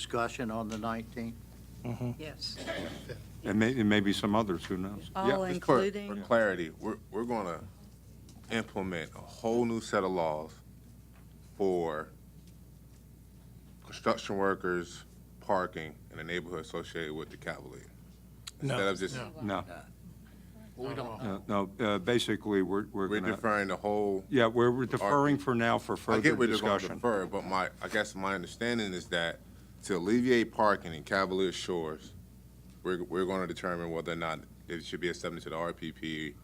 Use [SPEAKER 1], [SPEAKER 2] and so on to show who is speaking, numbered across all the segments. [SPEAKER 1] Discussion on the 19th?
[SPEAKER 2] Yes.
[SPEAKER 3] And may, and maybe some others, who knows?
[SPEAKER 2] All
[SPEAKER 4] just for-
[SPEAKER 2] including,
[SPEAKER 4] For clarity, we're, we're gonna implement a whole new set of laws for construction workers, parking, and the neighborhood associated with the Cavalier. Instead
[SPEAKER 5] No.
[SPEAKER 4] of just,
[SPEAKER 3] No,
[SPEAKER 1] We don't know.
[SPEAKER 3] no, no, uh, basically, we're, we're
[SPEAKER 4] we're
[SPEAKER 3] gonna,
[SPEAKER 4] deferring the whole,
[SPEAKER 3] yeah, we're we're deferring for now for
[SPEAKER 4] I
[SPEAKER 3] further
[SPEAKER 4] get we're just gonna
[SPEAKER 3] discussion.
[SPEAKER 4] defer, but my, I guess my understanding is that to alleviate parking in Cavalier Shores, we're, we're gonna determine whether or not it should be accepted to the RPP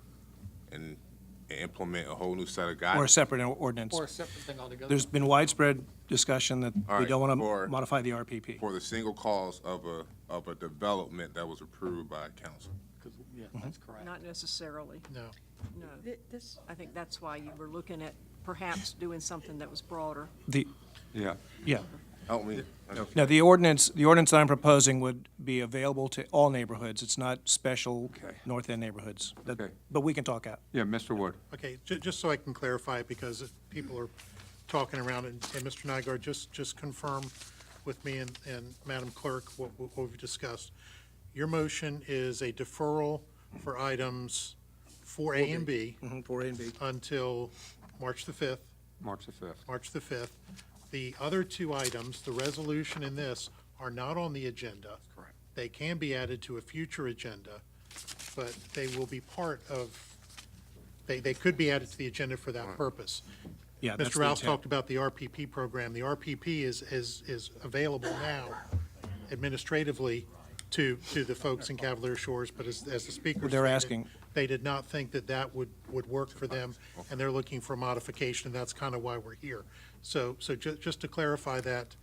[SPEAKER 4] and and implement a whole new set of guidelines.
[SPEAKER 5] Or a separate ordinance.
[SPEAKER 6] Or a separate thing altogether.
[SPEAKER 5] There's been widespread discussion that
[SPEAKER 4] All
[SPEAKER 5] we
[SPEAKER 4] right,
[SPEAKER 5] don't want
[SPEAKER 4] or-
[SPEAKER 5] to modify the RPP.
[SPEAKER 4] for the single cause of a, of a development that was approved by council.
[SPEAKER 6] 'Cause- Yeah, that's correct.
[SPEAKER 2] not necessarily,
[SPEAKER 6] No.
[SPEAKER 2] no.
[SPEAKER 7] Th- This,
[SPEAKER 2] I think that's why you were looking at perhaps doing something that was broader.
[SPEAKER 5] The,
[SPEAKER 3] Yeah,
[SPEAKER 5] yeah.
[SPEAKER 4] Help me.
[SPEAKER 5] Now, the ordinance, the ordinance that I'm proposing would be available to all neighborhoods. It's not special
[SPEAKER 3] Okay.
[SPEAKER 5] North End neighborhoods. That-
[SPEAKER 3] Okay.
[SPEAKER 5] But we can talk out.
[SPEAKER 3] yeah, Mr. Wood.
[SPEAKER 6] Okay, ju- just so I can clarify, because people are talking around, and and Mr. Nygaard, just, just confirm with me and, and Madam Clerk what, what we've discussed. Your motion is a deferral for items four A and B
[SPEAKER 5] Four Mm, A and B.
[SPEAKER 6] until March the fifth,
[SPEAKER 3] March the 5th.
[SPEAKER 6] March the fifth. The other two items, the resolution and this, are not on the agenda. Correct. They can be added to a future agenda, but they will be part of, they, they could be added to the agenda for that purpose.
[SPEAKER 5] Yeah, that's
[SPEAKER 6] Mr.
[SPEAKER 5] the
[SPEAKER 6] Rouse
[SPEAKER 5] intent.
[SPEAKER 6] talked about the RPP program. The RPP is, is, is available now administratively to, to the folks in Cavalier Shores, but as, as the speaker
[SPEAKER 5] They're
[SPEAKER 6] stated,
[SPEAKER 5] asking.
[SPEAKER 6] They did not think that that would, would work for them, and they're looking for modification, and that's kind of why we're here. So, so ju- just to clarify that.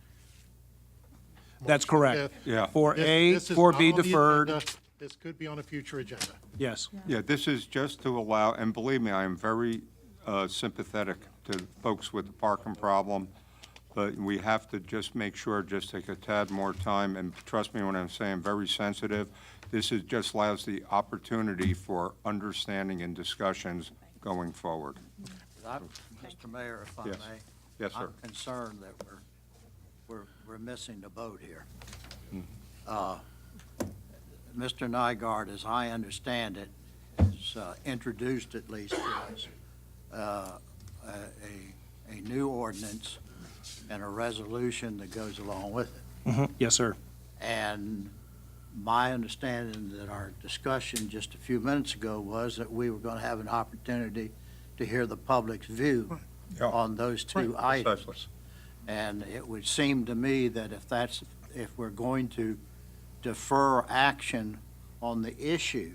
[SPEAKER 5] That's correct.
[SPEAKER 6] fifth,
[SPEAKER 3] Yeah.
[SPEAKER 5] Four
[SPEAKER 6] this-
[SPEAKER 5] A,
[SPEAKER 6] this is
[SPEAKER 5] four
[SPEAKER 6] not
[SPEAKER 5] B
[SPEAKER 6] on the
[SPEAKER 5] deferred,
[SPEAKER 6] agenda. This could be on a future agenda.
[SPEAKER 5] yes.
[SPEAKER 3] Yeah, this is just to allow, and believe me, I am very uh, sympathetic to folks with the parking problem, but we have to just make sure, just take a tad more time, and trust me when I'm saying very sensitive. This is, just allows the opportunity for understanding and discussions going forward.
[SPEAKER 1] I'm- Mr. Mayor, if I may.
[SPEAKER 3] Yes. Yes, sir.
[SPEAKER 1] I'm concerned that we're, we're, we're missing the boat here.
[SPEAKER 3] Hmm.
[SPEAKER 1] Uh, Mr. Nygaard, as I understand it, has uh, introduced at least to us uh, a, a- a new ordinance and a resolution that goes along with it.
[SPEAKER 5] Mhm. Yes, sir.
[SPEAKER 1] And my understanding that our discussion just a few minutes ago was that we were going to have an opportunity to hear the public's view
[SPEAKER 3] Yeah.
[SPEAKER 1] on those two
[SPEAKER 3] Right. Precisely.
[SPEAKER 1] items. And it would seem to me that if that's, if we're going to defer action on the issue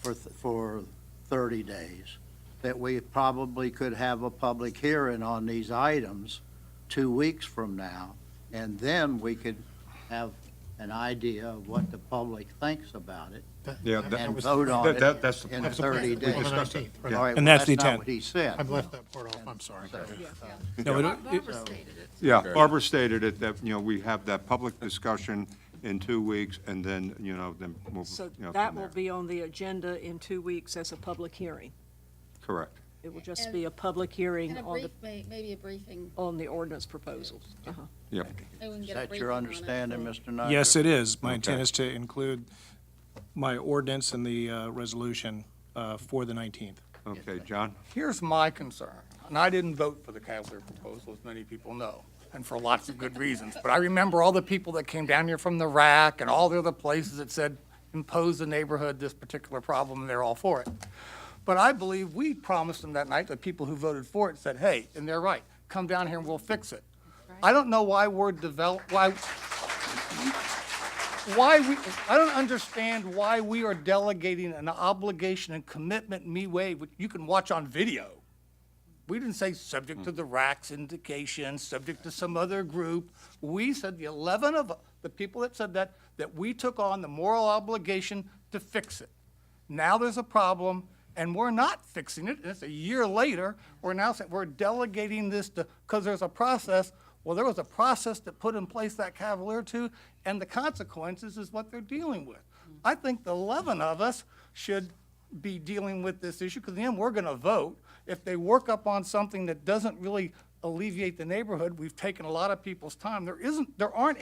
[SPEAKER 1] for, th- for 30 days, that we probably could have a public hearing on these items two weeks from now, and then we could have an idea of what the public thinks about it
[SPEAKER 6] That-
[SPEAKER 3] Yeah,
[SPEAKER 6] that-
[SPEAKER 3] that-
[SPEAKER 6] that
[SPEAKER 1] and
[SPEAKER 6] was-
[SPEAKER 1] vote on
[SPEAKER 3] That-
[SPEAKER 1] it
[SPEAKER 3] that- that's the
[SPEAKER 1] in
[SPEAKER 3] plan.
[SPEAKER 6] That's the plan.
[SPEAKER 1] 30
[SPEAKER 6] On the
[SPEAKER 1] days.
[SPEAKER 6] 19th,
[SPEAKER 1] All right,
[SPEAKER 6] right.
[SPEAKER 1] well,
[SPEAKER 5] And that's the
[SPEAKER 1] not
[SPEAKER 5] intent.
[SPEAKER 1] what he said.
[SPEAKER 6] I've left that part off, I'm sorry.
[SPEAKER 5] No, it- it-
[SPEAKER 3] Yeah, Barbara stated it, that, you know, we have that public discussion in two weeks, and then, you know, then we'll,
[SPEAKER 2] So
[SPEAKER 3] you know,
[SPEAKER 2] that
[SPEAKER 3] from
[SPEAKER 2] will
[SPEAKER 3] there.
[SPEAKER 2] be on the agenda in two weeks as a public hearing.
[SPEAKER 3] Correct.
[SPEAKER 2] It will just be a public hearing
[SPEAKER 8] And a
[SPEAKER 2] on
[SPEAKER 8] brief,
[SPEAKER 2] the,
[SPEAKER 8] may- maybe a briefing,
[SPEAKER 2] on the ordinance proposals. Uh-huh.
[SPEAKER 3] Yep.
[SPEAKER 8] maybe we can
[SPEAKER 1] Is
[SPEAKER 8] get a
[SPEAKER 1] that
[SPEAKER 8] briefing
[SPEAKER 1] your
[SPEAKER 8] on it.
[SPEAKER 1] understanding, Mr. Nygaard?
[SPEAKER 5] Yes, it is. My intent
[SPEAKER 3] Okay.
[SPEAKER 5] is to include my ordinance and the uh, resolution uh, for the 19th.
[SPEAKER 3] Okay, John?
[SPEAKER 6] Here's my concern, and I didn't vote for the Cavalier proposal, as many people know, and for lots of good reasons. But I remember all the people that came down here from the RAC and all the other places that said, impose the neighborhood this particular problem, and they're all for it. But I believe we promised them that night, the people who voted for it said, hey, and they're right, come down here and we'll fix it. I don't know why we're develop, why, why we, I don't understand why we are delegating an obligation and commitment me way, which you can watch on video. We didn't say subject to the RAC's indication, subject to some other group. We said the 11 of, the people that said that, that we took on the moral obligation to fix it. Now there's a problem, and we're not fixing it, and it's a year later, we're now saying, we're delegating this to, because there's a process. Well, there was a process that put in place that Cavalier too, and the consequences is what they're dealing with. I think the 11 of us should be dealing with this issue, because then we're going to vote. If they work up on something that doesn't really alleviate the neighborhood, we've taken a lot of people's time. There isn't, there aren't